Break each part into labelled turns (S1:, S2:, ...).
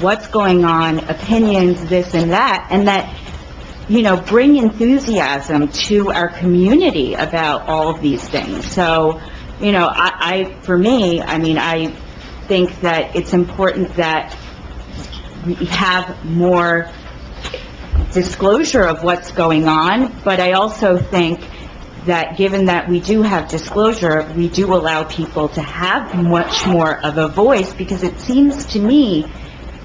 S1: what's going on, opinions, this and that, and that, you know, bring enthusiasm to our community about all of these things. So, you know, I, I, for me, I mean, I think that it's important that we have more disclosure of what's going on, but I also think that given that we do have disclosure, we do allow people to have much more of a voice, because it seems to me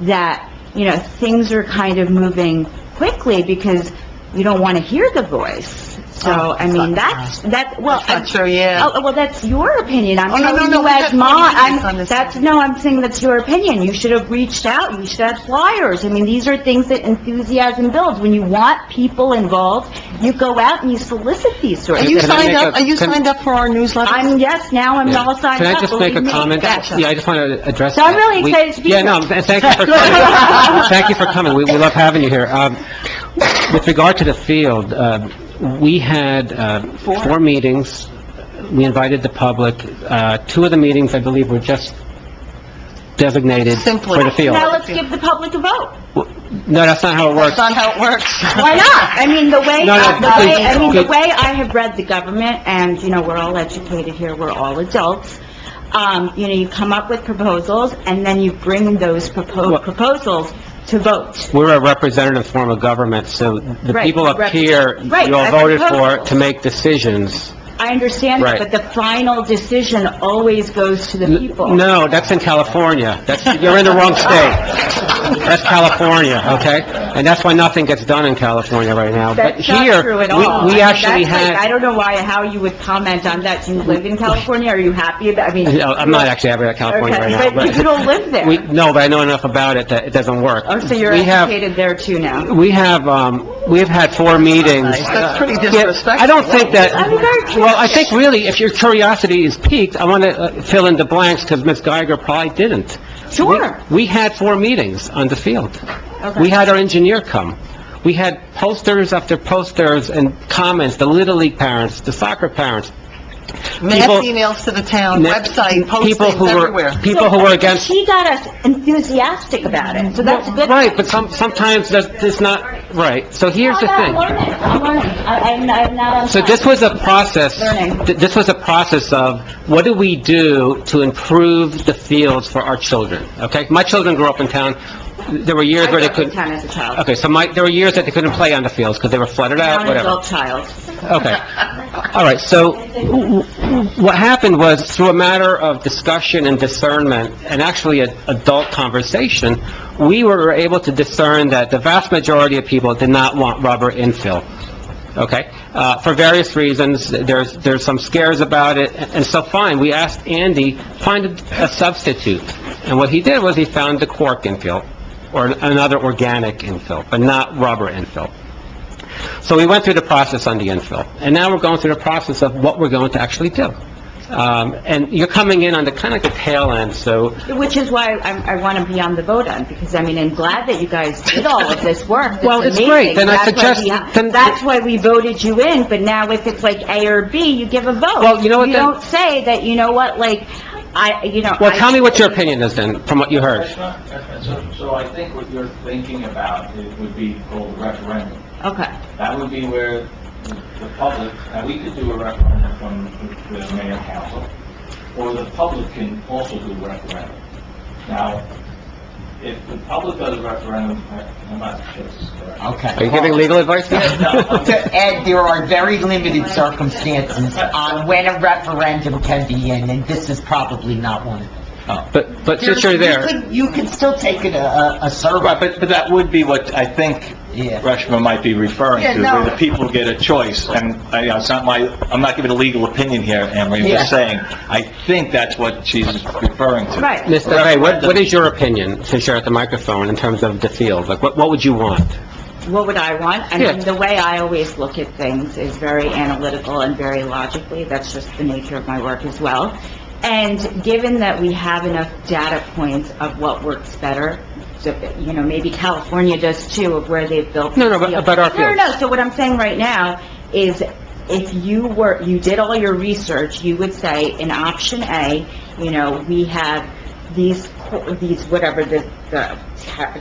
S1: that, you know, things are kind of moving quickly, because we don't want to hear the voice. So, I mean, that's, that, well...
S2: That's not true, yeah.
S1: Oh, well, that's your opinion, I'm
S2: Oh, no, no,
S1: telling
S2: no,
S1: you
S2: we
S1: as
S2: had
S1: mom,
S2: 20 minutes on
S1: I'm,
S2: this
S1: that's,
S2: subject.
S1: no, I'm saying that's your opinion, you should have reached out, you should have flyers, I mean, these are things that enthusiasm builds, when you want people involved, you go out and you solicit these sorts
S2: Are
S1: of
S2: you
S1: things.
S3: Can I
S2: signed
S3: make
S2: up,
S3: a-
S2: are you
S3: can-
S2: signed up for our newsletter?
S1: I'm, yes, now I'm all signed
S3: Can I
S1: up,
S3: just make
S1: believe
S3: a
S1: me.
S3: comment?
S1: Gotcha.
S3: Yeah, I just want to address
S1: So I'm
S3: that.
S1: really
S3: We-
S1: excited to be
S3: Yeah,
S1: here.
S3: no, and thank you for coming. Thank you for coming. We, we love having you here. Um, with regard to the field, uh, we had, uh, four meetings. We invited the public. Uh, two of the meetings, I believe, were just designated
S2: Simply.
S3: for the field.
S1: Now let's give the public a vote.
S3: No, that's not how it works.
S2: That's not how it works.
S1: Why not? I mean, the way,
S3: No, no,
S1: the way, I mean, the
S3: please.
S1: way I have read the government, and, you know, we're all educated here, we're all adults, um, you know, you come up with proposals, and then you bring those
S3: Well-
S1: propo- proposals to vote.
S3: We're a representative form of government, so the
S1: Right,
S3: people up
S1: rep-
S3: here,
S1: Right,
S3: you all
S1: I
S3: voted
S1: propose.
S3: for to make decisions.
S1: I understand that,
S3: Right.
S1: but the final decision always goes to the people.
S3: No, that's in California. That's, you're in the wrong state. That's California, okay? And that's why nothing gets done in California right now. But
S1: That's not
S3: here,
S1: true at
S3: we-
S1: all. I
S3: We
S1: mean,
S3: actually
S1: that's like- I
S3: had,
S1: don't know why, how you would comment on that. Do you live in California? Are you happy about, I mean...
S3: No, I'm not actually ever at California right now,
S1: Okay, but you
S3: but...
S1: don't live there.
S3: we- No, but I know enough about it that it doesn't work.
S1: Oh, so you're
S3: We have-
S1: educated there too now.
S3: We have, um, we've had four meetings.
S2: That's pretty
S3: Yeah,
S2: disrespectful.
S3: I don't think that,
S1: I'm very
S3: well, I think really, if your curiosity is piqued, I want to fill in the blanks, because Ms. Geiger probably didn't.
S1: Sure.
S3: We we had four meetings on the field.
S1: Okay.
S3: We had our engineer come. We had posters after posters and comments, the Little League parents, the soccer parents.
S2: Mass
S3: People-
S2: emails to the town,
S3: ne-
S2: website,
S3: people who
S2: postings
S3: were-
S2: everywhere.
S3: People who were against...
S1: She got us enthusiastic about it, so that's a good.
S3: Right, but some, sometimes that's, it's not, right. So here's the
S1: I'm
S3: thing.
S1: learning, I'm learning. I- I'm, I'm not on.
S3: So
S1: time.
S3: this was a process,
S1: Learning.
S3: th- this was a process of, what do we do to improve the fields for our children, okay? My children grew up in town, there were years
S1: I
S3: where they
S1: worked in
S3: couldn't...
S1: town as a child.
S3: Okay, so my, there were years that they couldn't play on the fields because they were flooded
S1: Now I'm
S3: out,
S1: an
S3: Uh, whatever.
S1: adult child.
S3: Okay. All right, so w- w- what happened was, through a matter of discussion and discernment, and actually an adult conversation, we were able to discern that the vast majority of people did not want rubber infill, okay? Uh, For various reasons, there's, there's some scares about it, and so fine, we asked Andy, find a a substitute. And what he did was, he found the cork infill, or another organic infill, but not rubber infill. So we went through the process on the infill, and now we're going through the process of what we're going to actually do. Um, and you're coming in on the kind of the tail end, so,
S1: Which is why I'm, I want to be on the vote on, because I mean, I'm glad that you guys did all of this work. That's
S3: Well, it's great.
S1: amazing.
S3: Then I
S1: That's why
S3: suggest-
S1: we-
S3: then-
S1: That's why we voted you in, but now if it's like A or B, you give a vote.
S3: Well, you know what,
S1: You
S3: then-
S1: don't say that, you know what, like, I, you know.
S3: well,
S1: I-
S3: tell me what your opinion is then, from what you heard.
S4: That's not- that's- So so I think what you're thinking about it would be called a referendum.
S1: Okay.
S4: That would be where the the public, now we could do a referendum from the- the mayor council, or the public can also do a referendum. Now, if the public does a referendum, I- I'm not sure this is correct.
S3: Are
S5: Okay.
S3: you giving legal advice
S4: No,
S3: now?
S4: I'm-
S5: To add, there are very limited circumstances on when a referendum can be in, and this is probably not one.
S4: oh.
S3: But, but since you're
S5: You
S3: there,
S5: could- You could still take it a- a, a
S4: Right,
S5: survey,
S4: but, but that would be what I think
S5: Yeah.
S4: Rushman might be referring
S5: Yeah,
S4: to,
S5: no.
S4: where the people get a choice, and, I, you know, it's not my, I'm not giving a legal opinion here, Emery, I'm just
S5: Yeah.
S4: saying, I think that's what she's referring to.
S1: Right.
S3: Mr. Ray, what, what is your opinion, since you're at the microphone, in terms of the field? Like, what, what would you want?
S1: what would I want? I
S3: Yeah.
S1: mean, the way I always look at things is very analytical and very logically. That's just the nature of my work as well. And given that we have enough data points of what works better, so, you know, maybe California does too, of where they've built.
S3: No, no, but- but our
S1: No, no,
S3: fields.
S1: no. So what I'm saying right now is if you were, you did all your research, you would say in option A, you know, we have these, co- these, whatever, the, the ta-